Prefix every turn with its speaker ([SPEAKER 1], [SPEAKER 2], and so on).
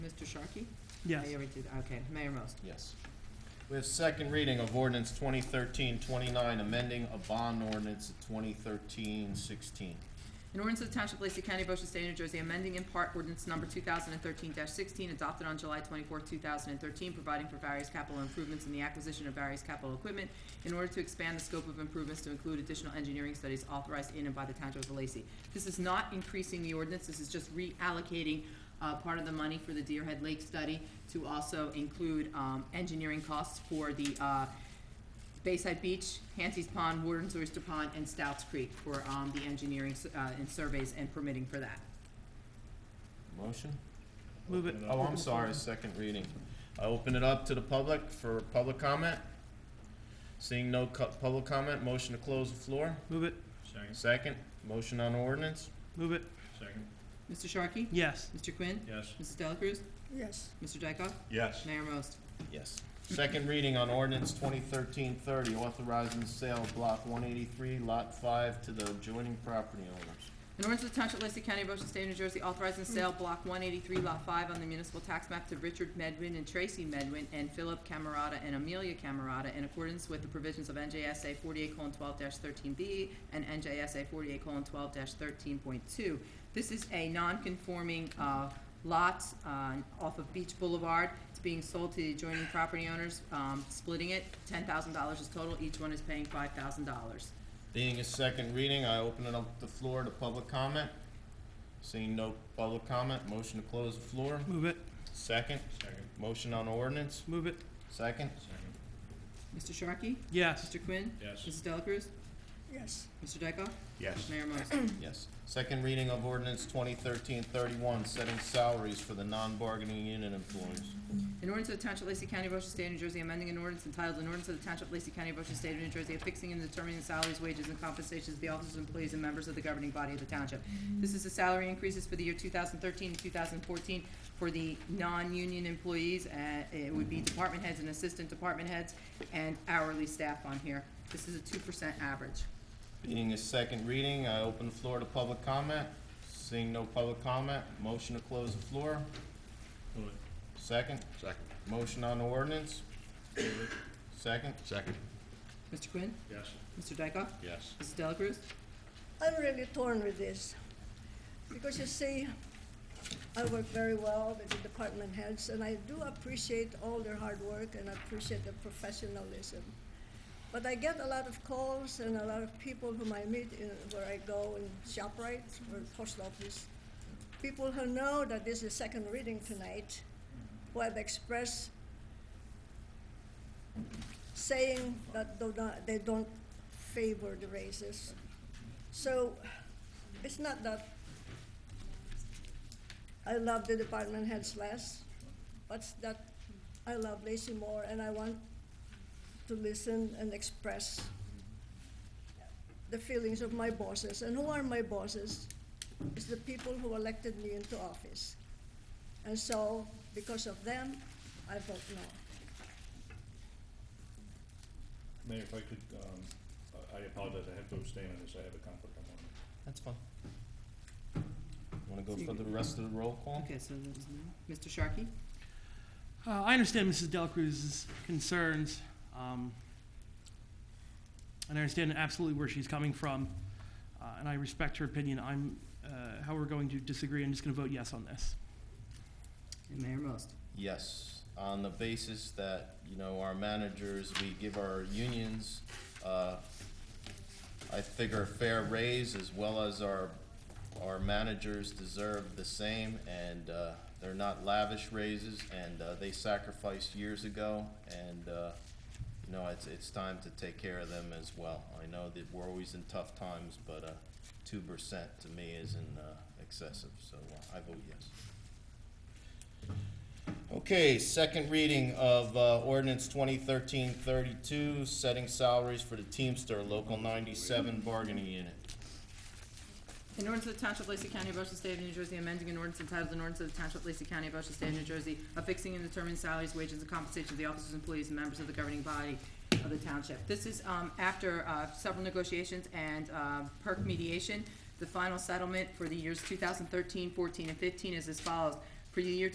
[SPEAKER 1] Sharkey?
[SPEAKER 2] Yes.
[SPEAKER 1] I already did, okay, Mayor Most.
[SPEAKER 3] Yes. We have second reading of ordinance 2013-29, amending a bond ordinance at 2013-16.
[SPEAKER 1] An ordinance of the Township of Lacey County, Ocean State, New Jersey, amending in part ordinance number two thousand and thirteen sixteen, adopted on July twenty-fourth, two thousand and thirteen, providing for various capital improvements and the acquisition of various capital equipment in order to expand the scope of improvements to include additional engineering studies authorized in and by the Township of Lacey. This is not increasing the ordinance, this is just reallocating, uh, part of the money for the Deerhead Lake study to also include, um, engineering costs for the, uh, Bayside Beach, Hansi's Pond, Warden's Oyster Pond, and Stouts Creek for um, the engineering uh, and surveys and permitting for that.
[SPEAKER 3] Motion?
[SPEAKER 2] Move it.
[SPEAKER 3] Oh, I'm sorry, second reading. I open it up to the public for public comment. Seeing no cu- public comment, motion to close the floor.
[SPEAKER 2] Move it,
[SPEAKER 4] Second,
[SPEAKER 3] Second, motion on ordinance?
[SPEAKER 2] move it,
[SPEAKER 4] second,
[SPEAKER 1] Mr. Sharkey?
[SPEAKER 2] yes.
[SPEAKER 1] Mr. Quinn?
[SPEAKER 4] yes.
[SPEAKER 1] Mrs. Delacruz?
[SPEAKER 5] yes,
[SPEAKER 1] Mr. Dykoff?
[SPEAKER 4] Yes.
[SPEAKER 1] Mayor Most?
[SPEAKER 3] Yes. Second reading on ordinance 2013-30, authorizing the sale of block one eighty-three, lot five to the adjoining property owners.
[SPEAKER 1] An ordinance of the Township of Lacey County, Ocean State, New Jersey, authorizing sale of block one eighty-three, lot five on the municipal tax map to Richard Medwin and Tracy Medwin and Philip Camerata and Amelia Camerata in accordance with the provisions of NJSA forty-eight twelve thirteen B and NJSA forty-eight twelve thirteen point two. This is a non-conforming, uh, lot, uh, off of Beach Boulevard. It's being sold to the adjoining property owners, um, splitting it. Ten thousand dollars is total. Each one is paying five thousand dollars.
[SPEAKER 3] Being a second reading, I open it up the floor to public comment. Seeing no public comment, motion to close the floor.
[SPEAKER 2] Move it,
[SPEAKER 3] Second,
[SPEAKER 4] Second,
[SPEAKER 3] motion on ordinance.
[SPEAKER 2] move it,
[SPEAKER 3] Second,
[SPEAKER 4] second,
[SPEAKER 1] Mr. Sharkey?
[SPEAKER 2] yes.
[SPEAKER 1] Mr. Quinn?
[SPEAKER 4] yes.
[SPEAKER 1] Mrs. Delacruz?
[SPEAKER 5] yes,
[SPEAKER 1] Mr. Dykoff?
[SPEAKER 4] Yes.
[SPEAKER 1] Mayor Most.
[SPEAKER 3] yes. Second reading of ordinance 2013-31, setting salaries for the non-bargaining unit employees.
[SPEAKER 1] An ordinance of the Township of Lacey County, Ocean State, New Jersey, amending an ordinance entitled, an ordinance of the Township of Lacey County, Ocean State, New Jersey, affixing and determining the salaries, wages, and compensations of the officers, employees, and members of the governing body of the township. This is the salary increases for the year two thousand thirteen and two thousand fourteen for the non-union employees, uh, it would be department heads and assistant department heads, and hourly staff on here. This is a two percent average.
[SPEAKER 3] Being a second reading, I open the floor to public comment. Seeing no public comment, motion to close the floor.
[SPEAKER 4] Move it.
[SPEAKER 3] Second,
[SPEAKER 4] Second.
[SPEAKER 3] motion on ordinance.
[SPEAKER 4] Move it.
[SPEAKER 3] Second,
[SPEAKER 4] Second.
[SPEAKER 1] Mr. Quinn?
[SPEAKER 4] Yes.
[SPEAKER 1] Mr. Dykoff?
[SPEAKER 4] Yes.
[SPEAKER 1] Mrs. Delacruz?
[SPEAKER 5] I'm really torn with this, because you see, I work very well with the department heads, and I do appreciate all their hard work and I appreciate their professionalism. But I get a lot of calls and a lot of people whom I meet in, where I go in ShopRite or post office, people who know that this is second reading tonight, who have expressed saying that do not, they don't favor the races. So it's not that I love the department heads less, but that I love Lacey more and I want to listen and express the feelings of my bosses. And who are my bosses? It's the people who elected me into office. And so, because of them, I vote no.
[SPEAKER 6] Mayor, if I could, um, I- I apologize, I have to abstain on this, I have a conflict on one.
[SPEAKER 3] that's fine. Want to go for the rest of the roll call?
[SPEAKER 1] Okay, so that was no. Mr. Sharkey?
[SPEAKER 2] Uh, I understand Mrs. Delacruz's concerns, um, and I understand absolutely where she's coming from, uh, and I respect her opinion. I'm, uh, how we're going to disagree, I'm just gonna vote yes on this.
[SPEAKER 1] And Mayor Most.
[SPEAKER 3] Yes, on the basis that, you know, our managers, we give our unions, uh, I figure a fair raise as well as our, our managers deserve the same and, uh, they're not lavish raises and, uh, they sacrificed years ago and, uh, you know, it's, it's time to take care of them as well. I know that we're always in tough times, but, uh, two percent to me isn't, uh, excessive, so uh, I vote yes. Okay, second reading of uh, ordinance 2013-32, setting salaries for the Teamster Local 97 bargaining unit.
[SPEAKER 1] In order to the Township of Lacey County, Ocean State of New Jersey, amending an ordinance entitled an ordinance of the Township of Lacey County, Ocean State of New Jersey, affixing and determining salaries, wages, and compensation of the officers, employees, and members of the governing body of the township. This is, um, after, uh, several negotiations and, uh, perk mediation. The final settlement for the years 2013, 14, and fifteen is as follows. For the year